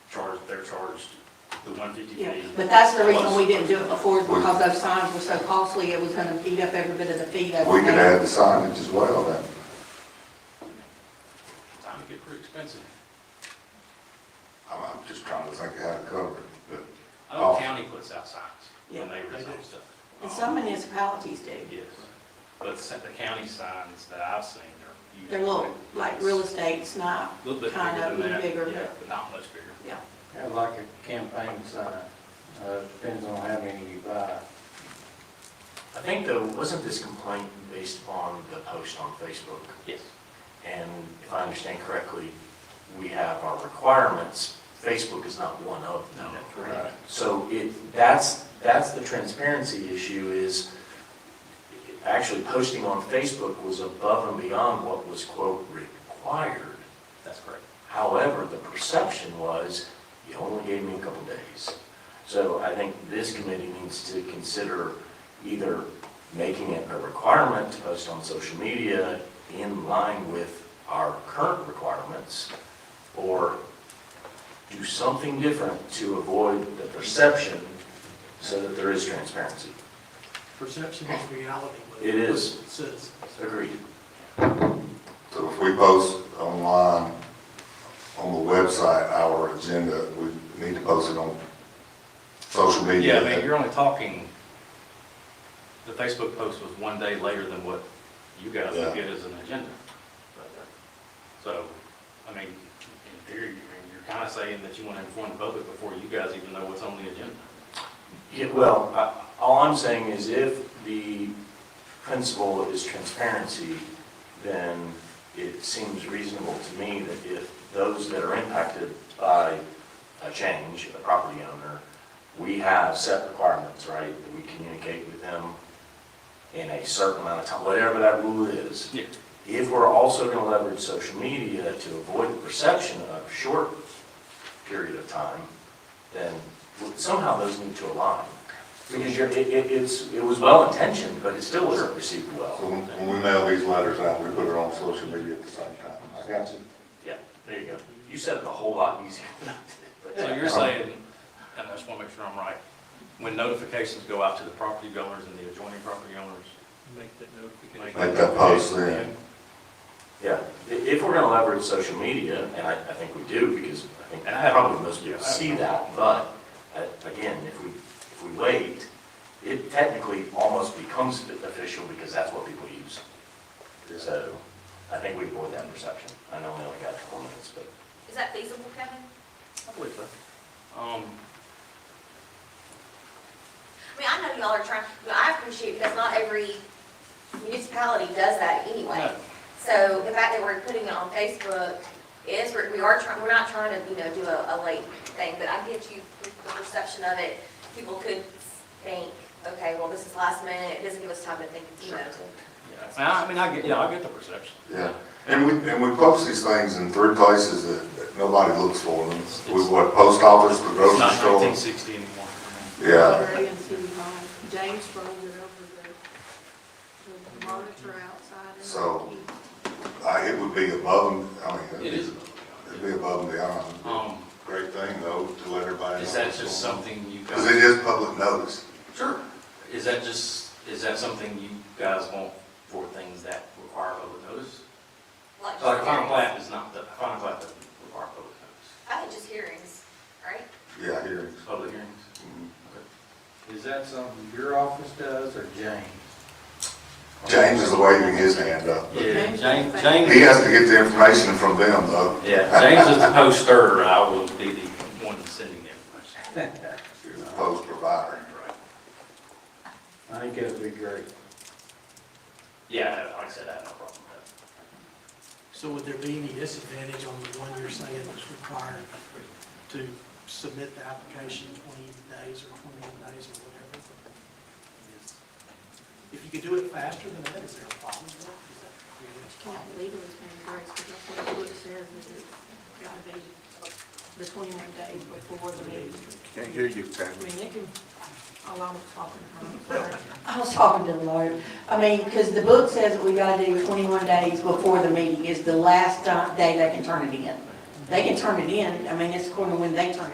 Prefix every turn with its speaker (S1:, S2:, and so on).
S1: charged the one fifty
S2: Yeah,
S1: fee.
S2: But that's the reason we didn't do it before, because those signs were so costly, it was gonna eat up every bit of the fee that we
S3: We could
S2: had.
S3: add the signage as well, then.
S1: Time to get pretty expensive.
S3: I'm, I'm just trying to think of how to cover it, but.
S1: I know
S3: Oh.
S1: the county puts out signs when
S2: Yeah,
S1: they
S4: they
S1: rezone
S4: do.
S1: stuff.
S2: And some municipalities do.
S1: Yes, but the the county signs that I've seen are usually.
S2: They're little, like real estate's not,
S1: A Little bit
S2: kind
S1: bigger
S2: of
S1: than that,
S2: bigger,
S1: yeah,
S2: but-
S1: but not much bigger.
S2: yeah.
S5: Kind of like a campaign sign, uh, depends on how many you buy.
S4: I think though, wasn't this complaint based upon the post on Facebook?
S1: Yes.
S4: And if I understand correctly, we have our requirements, Facebook is not one of them.
S1: No.
S3: Right.
S4: So it, that's, that's the transparency issue is, actually posting on Facebook was above and beyond what was quote required.
S1: That's correct.
S4: However, the perception was, you only gave me a couple days. So I think this committee needs to consider either making it a requirement to post on social media in line with our current requirements, or do something different to avoid the perception so that there is transparency.
S6: Perception is reality. what
S4: It is.
S6: It says.
S4: Agreed.
S3: So if we post online, on the website, our agenda, we need to post it on social
S1: Yeah,
S3: media.
S1: I mean, you're only talking, the Facebook post was one day later than what you guys
S3: Yeah.
S1: would get as an agenda. uh, So, I mean, in theory, I mean, you're kind of saying that you want to inform the public before you guys even know what's on the agenda.
S4: Yeah, well, I- all I'm saying is if the principle is transparency, then it seems reasonable to me that if those that are impacted by a change, a property owner, we have set requirements, right? that We communicate with them in a certain amount of time, whatever that rule is.
S1: Yeah.
S4: If we're also going to leverage social media to avoid the perception of a short period of time, then somehow those need to align. Because you're, it, it, it's, it was well intentioned, but it still wasn't received
S3: So
S4: well.
S3: when when we mail these letters out, we put it on social media at the same time. I got you.
S4: Yeah, there you go. You said it a whole lot easier than I did. but-
S1: So you're saying, and I just want to make sure I'm right, when notifications go out to the property owners and the adjoining property owners,
S6: Make that
S1: like.
S6: notification.
S3: Make that post then.
S4: Yeah, i- if we're gonna leverage social media, and I, I think we do, because I think
S1: And I have-
S4: probably most people
S1: yeah, I-
S4: see that, but, uh, again, if we, if we wait, it technically almost becomes official because that's what people use. So, I think we avoid that perception. I know we only got four minutes, but.
S7: Is that feasible, Kevin?
S1: I believe so. Um,
S7: I mean, I know y'all are trying, but I appreciate because not every municipality does that anyway.
S1: no.
S7: So the fact that we're putting it on Facebook is, we're- we are trying, we're not trying to, you know, do a, a late thing, but I get you with the perception of it. People could think, okay, well, this is last minute, it doesn't give us time to think, you know, to.
S1: Yeah, I I mean, I get, yeah, I get the perception.
S3: Yeah. And we, and we post these things in three places that that nobody looks for them. We, what, post office, the
S1: It's
S3: grocery
S1: not
S3: store?
S1: 1960 anymore.
S3: Yeah.
S2: Library and city hall. James rolled it over the, the monitor outside. and
S3: So- I, it would be above and, I mean. it'd
S1: It
S3: be-
S1: is.
S3: It'd be above and beyond.
S1: Um,
S3: Great thing though, to let everybody know.
S1: is that just something you
S3: Because it
S1: guys?
S3: is public notice.
S1: Sure. Is that just, is that something you guys want for things that require public notice?
S7: like,
S1: Like,
S7: just
S1: final
S7: hearings.
S1: plat is not, the final plat doesn't require public notice.
S7: I think just hearings, right?
S3: Yeah, hearings.
S1: Public hearings?
S3: Mhm.
S5: Is that something your office does or James?
S3: James is waving his hand up.
S1: Yeah, James,
S3: He
S1: James,
S3: has to get the information from them though.
S1: yeah, James is the poster, I will be the one sending the information.
S3: He's a post provider.
S1: Right.
S5: I think that'd be great.
S1: Yeah, like I said, I have no problem with
S6: So would there be any disadvantage on the one you're saying that's required to submit the application 20 days or 21 days or whatever? If you could do it faster than that, is there a problem? with that? Is that
S2: Can't
S6: realistic?
S2: believe it was being great, because that's what the book says, that it's gotta be the twenty-one days before the meeting.
S8: Can't hear you, Pat.
S2: I mean, it can, oh, I was talking, I'm sorry. I was talking to the lawyer. I mean, because the book says that we gotta do twenty-one days before the meeting is the last uh, day they can turn it in. They can turn it in, I mean, it's according to when they turn it